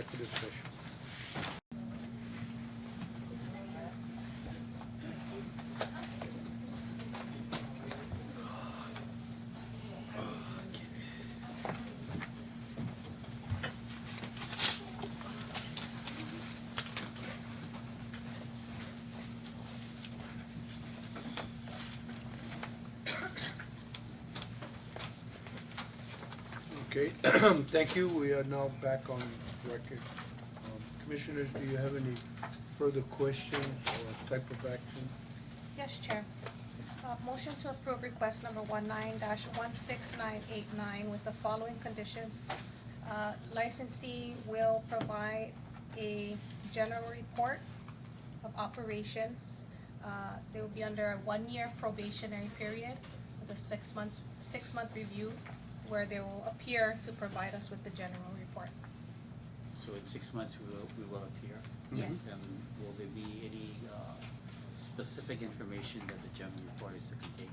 executive session. Okay, thank you. We are now back on record. Um, Commissioners, do you have any further questions or type of action? Yes, Chair. Uh, Motion to approve request number one-nine dash one-six-nine-eight-nine with the following conditions. Uh, Licensee will provide a general report of operations. Uh, They will be under a one-year probationary period with a six months, six-month review where they will appear to provide us with the general report. So in six months, we will, we will appear? Yes. And will there be any uh, specific information that the general report is to contain?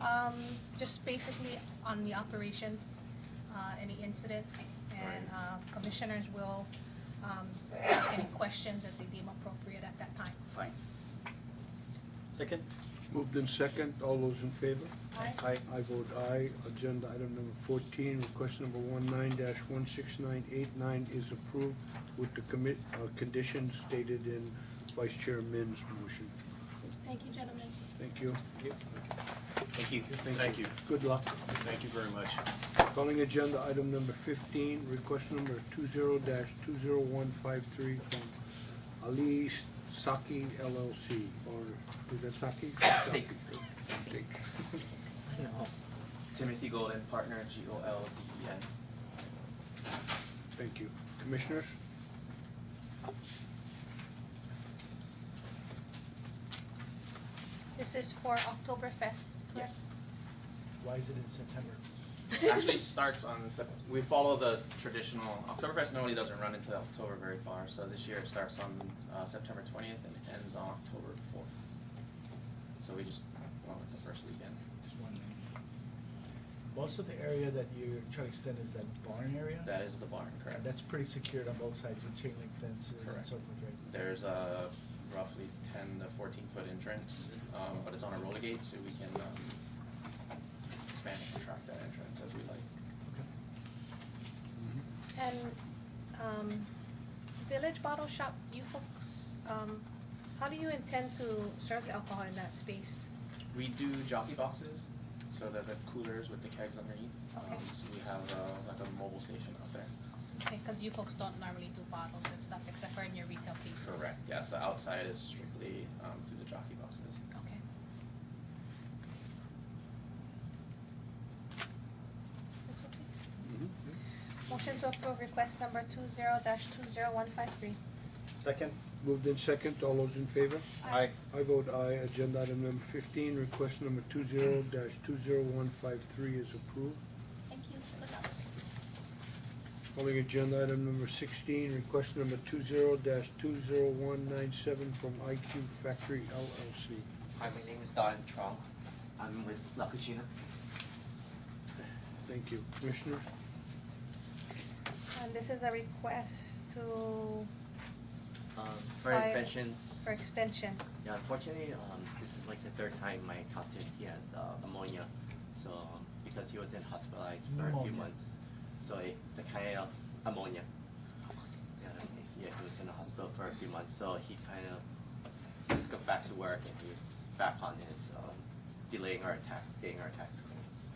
Um, just basically on the operations, uh, any incidents, and, Right. uh, commissioners will, um, ask any questions that they deem appropriate at that time. Fine. Second? Moved in second, all those in favor? Aye. Aye. I vote aye. Agenda item number fourteen, request number one-nine dash one-six-nine-eight-nine is approved with the commit, uh, conditions stated in Vice Chair Min's motion. Thank you, gentlemen. Thank you. Thank you. Thank you. Good luck. Thank you very much. Calling agenda item number fifteen, request number two zero dash two zero one five three from Ali Saki LLC, or is that Saki? Steak. Steak. Timothy Golden, partner, G O L D E N. Thank you. Commissioners? This is for Oktoberfest, correct? Yes. Why is it in September? Actually starts on, Sep- we follow the traditional, Oktoberfest normally doesn't run into October very far, so this year it starts on uh, September twentieth and ends on October fourth. So we just went with the first weekend. Most of the area that you're trying to extend is that barn area? That is the barn, correct? That's pretty secured on both sides with chain link fences and Correct. so forth, right? There's a roughly ten to fourteen foot entrance, um, but it's on a roller gate, so we can, um, expand and contract that entrance as we like. Okay. And, um, Village Bottle Shop, you folks, um, how do you intend to serve the alcohol in that space? We do jockey boxes, so that the coolers with the kegs underneath. Okay. Um, so we have uh, like a mobile station out there. Okay, cause you folks don't normally do bottles and stuff except for in your retail pieces. Yeah, so outside is strictly um, through the jockey boxes. Okay. That's okay. Mm-hmm. Motion to approve request number two zero dash two zero one five three. Second? Moved in second, all those in favor? Aye. I vote aye. Agenda item number fifteen, request number two zero dash two zero one five three is approved. Thank you, good luck. Calling agenda item number sixteen, request number two zero dash two zero one nine seven from IQ Factory LLC. Hi, my name is Don Trong. I'm with La Cucina. Thank you. Commissioners? And this is a request to, Um, for Hi. extensions. for extension. Yeah, unfortunately, um, this is like the third time my captain he has uh, pneumonia. So um, because he was in hospitalized for a Pneumonia. few months, so it, the kind of ammonia. Yeah, like, yeah, he was in the hospital for a few months, so he kind of he just got back to work and he was back on his um, delaying our attacks, getting our attacks claims.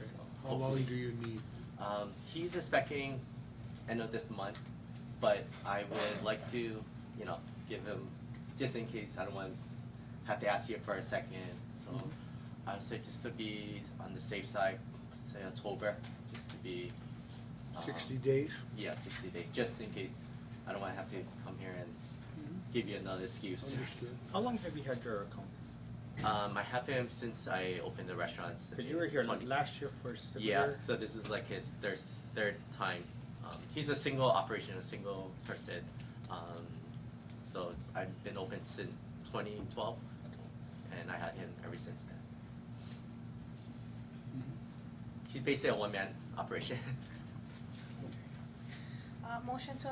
So How long hopefully- do you need? Um, he's expecting end of this month, but I would like to, you know, give him just in case I don't want to have to ask you for a second. So Mm-hmm. I would say just to be on the safe side, say October, just to be. um, Sixty days? Yeah, sixty days, just in case I don't want to have to come here and give you another excuse. Mm-hmm. Understood. How long have you had your account? Um, I have him since I opened the restaurants. Because you were here 20 last year for Yeah, similar. so this is like his third third time. Um, he's a single operation, a single person. Um, so I've been open since 2012, and I had him ever since then. He's basically a one man operation. Uh, motion to